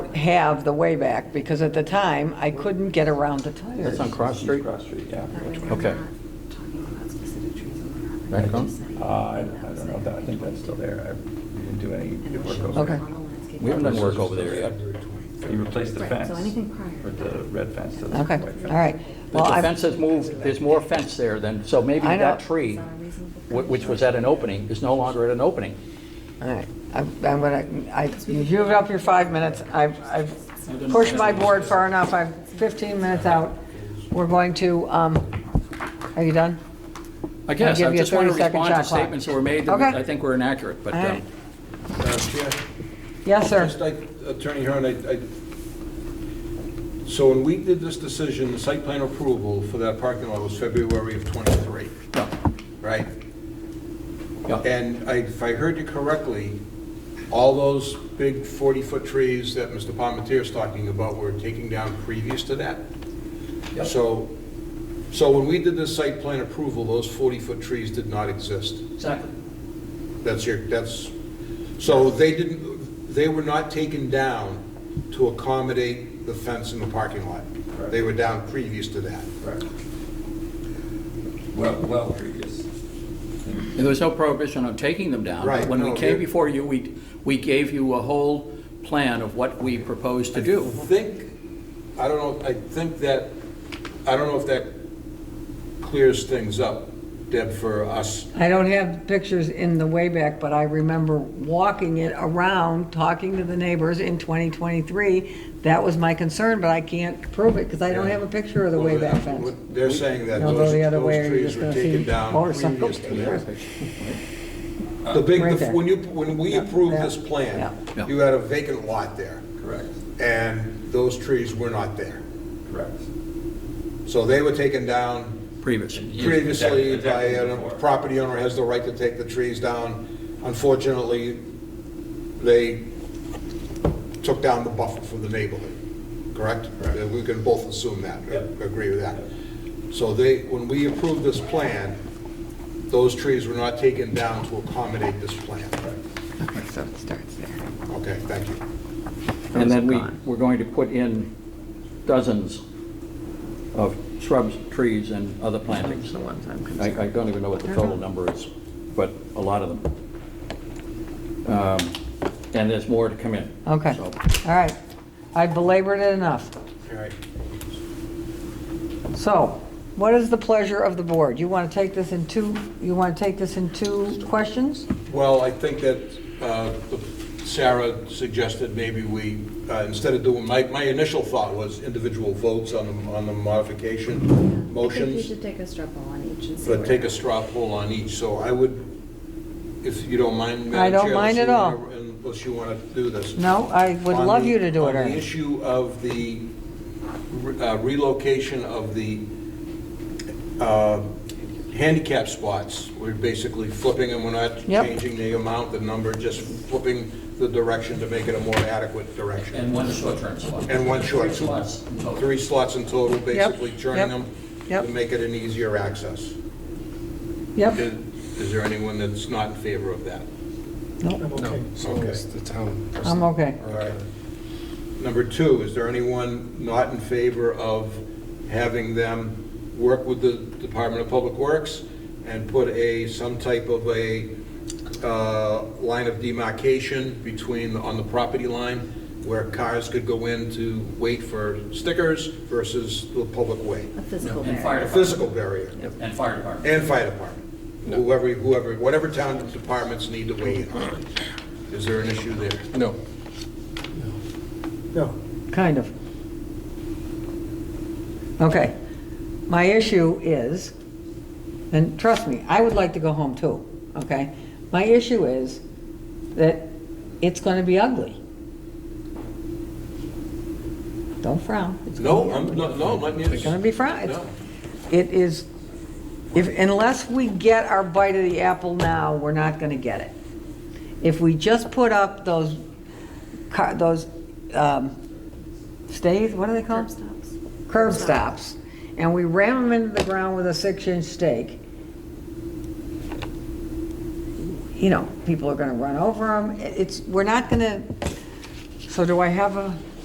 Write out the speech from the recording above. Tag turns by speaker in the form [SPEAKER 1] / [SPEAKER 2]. [SPEAKER 1] have the way back because at the time, I couldn't get around the
[SPEAKER 2] That's
[SPEAKER 1] tires.
[SPEAKER 2] on Cross Street?
[SPEAKER 3] Cross Street, yeah.
[SPEAKER 2] Okay.
[SPEAKER 4] That
[SPEAKER 2] Back on?
[SPEAKER 3] Uh, I I don't know, if that- I think that's still there. I didn't do any work over
[SPEAKER 1] Okay.
[SPEAKER 3] it.
[SPEAKER 2] We haven't done work over there yet.
[SPEAKER 3] You replaced the
[SPEAKER 4] Right,
[SPEAKER 3] fence,
[SPEAKER 4] so anything prior.
[SPEAKER 3] or the red fence to the
[SPEAKER 1] Okay,
[SPEAKER 3] white fence.
[SPEAKER 1] all right.
[SPEAKER 2] The
[SPEAKER 1] Well, I-
[SPEAKER 2] fence has moved, there's more fence there than, so maybe
[SPEAKER 1] I know.
[SPEAKER 2] that tree, wh- which was at an opening, is no longer at an opening.
[SPEAKER 1] All right, I'm I'm gonna, I, you used up your five minutes, I've, I've pushed my board far enough, I'm 15 minutes out. We're going to, um, are you done?
[SPEAKER 2] I guess,
[SPEAKER 1] give
[SPEAKER 2] I
[SPEAKER 1] you a
[SPEAKER 2] just want to
[SPEAKER 1] 30-second
[SPEAKER 2] respond to
[SPEAKER 1] shot clock.
[SPEAKER 2] statements that were made that
[SPEAKER 1] Okay.
[SPEAKER 2] I think were inaccurate, but,
[SPEAKER 1] All
[SPEAKER 2] um,
[SPEAKER 1] right.
[SPEAKER 5] Uh, Chair,
[SPEAKER 1] Yes,
[SPEAKER 5] just
[SPEAKER 1] sir.
[SPEAKER 5] like Attorney Hearn, I, I, so when we did this decision, the site plan approval for that parking lot was February of '23,
[SPEAKER 2] no,
[SPEAKER 5] right?
[SPEAKER 2] yeah.
[SPEAKER 5] And I- if I heard you correctly, all those big 40-foot trees that Mr. Palmentier's talking about were taken down previous to that?
[SPEAKER 2] Yep.
[SPEAKER 5] So, so when we did this site plan approval, those 40-foot trees did not exist?
[SPEAKER 2] Exactly.
[SPEAKER 5] That's your, that's, so they didn't, they were not taken down to accommodate the fence in the parking lot. They were down previous to that.
[SPEAKER 3] Well, well previous.
[SPEAKER 2] And there was no prohibition on taking them down.
[SPEAKER 5] Right,
[SPEAKER 2] When we
[SPEAKER 5] no,
[SPEAKER 2] came
[SPEAKER 5] you-
[SPEAKER 2] before you, we, we gave you a whole plan of what we proposed to do.
[SPEAKER 5] I think, I don't know, I think that, I don't know if that clears things up, Deb, for us.
[SPEAKER 1] I don't have pictures in the way back, but I remember walking it around, talking to the neighbors in 2023. That was my concern, but I can't prove it because I don't have a picture of the way back fence.
[SPEAKER 5] What They're saying that
[SPEAKER 1] Don't go
[SPEAKER 5] those
[SPEAKER 1] the other way,
[SPEAKER 5] those
[SPEAKER 1] or you're
[SPEAKER 5] trees
[SPEAKER 1] just
[SPEAKER 5] were
[SPEAKER 1] gonna see
[SPEAKER 5] taken down
[SPEAKER 1] motorcycle
[SPEAKER 5] previous
[SPEAKER 1] pictures.
[SPEAKER 5] to that. The big,
[SPEAKER 1] Right
[SPEAKER 5] the-
[SPEAKER 1] there.
[SPEAKER 5] when you, when we
[SPEAKER 1] Yeah,
[SPEAKER 5] approved
[SPEAKER 1] yeah,
[SPEAKER 5] this plan,
[SPEAKER 2] yeah.
[SPEAKER 5] you had a vacant lot there.
[SPEAKER 3] Correct,
[SPEAKER 5] and those trees were not there.
[SPEAKER 3] correct.
[SPEAKER 5] So they were taken down
[SPEAKER 2] Previous.
[SPEAKER 3] Years-
[SPEAKER 5] previously
[SPEAKER 3] decades
[SPEAKER 5] by, a
[SPEAKER 3] before.
[SPEAKER 5] property owner has the right to take the trees down. Unfortunately, they took down the buffer from the neighborhood, correct?
[SPEAKER 3] Correct.
[SPEAKER 5] We can both assume that, uh,
[SPEAKER 3] Yep.
[SPEAKER 5] agree with that. So they, when we approved this plan, those trees were not taken down to accommodate this plan.
[SPEAKER 1] Okay, so it starts there.
[SPEAKER 5] Okay, thank you.
[SPEAKER 2] And then we,
[SPEAKER 1] Gone.
[SPEAKER 2] we're going to put in dozens of shrubs, trees, and other plantings.
[SPEAKER 1] That's the ones I'm
[SPEAKER 2] I,
[SPEAKER 1] concerned.
[SPEAKER 2] I don't even know what the total number is, but a lot of them. Um, And there's more to come in.
[SPEAKER 1] Okay,
[SPEAKER 2] So,
[SPEAKER 1] all right. I belabored it enough.
[SPEAKER 5] All right.
[SPEAKER 1] So, what is the pleasure of the board? You want to take this in two, you want to take this in two questions?
[SPEAKER 5] Well, I think that uh, Sarah suggested maybe we, uh, instead of doing, my, my initial thought was individual votes on the, on the modification
[SPEAKER 4] I think you
[SPEAKER 5] motions,
[SPEAKER 4] should take a straw poll on each and see.
[SPEAKER 5] but
[SPEAKER 4] where-
[SPEAKER 5] take a straw poll on each, so I would, if you don't mind, Madam
[SPEAKER 1] I don't
[SPEAKER 5] Chair,
[SPEAKER 1] mind
[SPEAKER 5] unless
[SPEAKER 1] at
[SPEAKER 5] you
[SPEAKER 1] all.
[SPEAKER 5] wanna- Unless you want to do this.
[SPEAKER 1] No, I would
[SPEAKER 5] On
[SPEAKER 1] love
[SPEAKER 5] the-
[SPEAKER 1] you to do it,
[SPEAKER 5] On the
[SPEAKER 1] Ernie.
[SPEAKER 5] issue of the re- uh, relocation of the uh, handicap spots, we're basically flipping them, we're not
[SPEAKER 1] Yep.
[SPEAKER 5] changing the amount, the number, just flipping the direction to make it a more adequate direction.
[SPEAKER 2] And one short-term slot.
[SPEAKER 5] And one short.
[SPEAKER 2] Three slots in total.
[SPEAKER 5] Three slots in total, basically
[SPEAKER 1] yep,
[SPEAKER 5] turning them
[SPEAKER 1] yep.
[SPEAKER 5] to make it an easier access. Is
[SPEAKER 1] Yep,
[SPEAKER 5] is there anyone that's not in favor of that?
[SPEAKER 6] Okay, so
[SPEAKER 5] Okay.
[SPEAKER 6] it's the town.
[SPEAKER 1] I'm okay.
[SPEAKER 5] All right. Number two, is there anyone not in favor of having them work with the Department of Public Works and put a, some type of a uh, line of demarcation between, on the property line, where cars could go in to wait for stickers versus the public way?
[SPEAKER 4] A physical
[SPEAKER 2] And
[SPEAKER 4] barrier.
[SPEAKER 2] fire
[SPEAKER 5] A
[SPEAKER 2] department.
[SPEAKER 5] physical barrier,
[SPEAKER 2] And fire department.
[SPEAKER 5] and fire department, whoever, whoever, whatever town departments need to weigh in on it. Is there an issue there?
[SPEAKER 6] No. No.
[SPEAKER 1] Kind of. Okay. My issue is, and trust me, I would like to go home too, okay? My issue is that it's going to be ugly. Don't frown. It's gonna
[SPEAKER 5] No,
[SPEAKER 1] be
[SPEAKER 5] I'm,
[SPEAKER 1] ugly.
[SPEAKER 5] no, no, I'm
[SPEAKER 1] It's going to be fried.
[SPEAKER 5] No.
[SPEAKER 1] It is, if, unless we get our bite of the apple now, we're not going to get it. If we just put up those, car- those um, stays, what are they
[SPEAKER 4] Curb
[SPEAKER 1] called?
[SPEAKER 4] stops.
[SPEAKER 1] Curb stops, and we ram them into the ground with a six-inch stake, you know, people are going to run over them. It's, we're not going to, so do I have a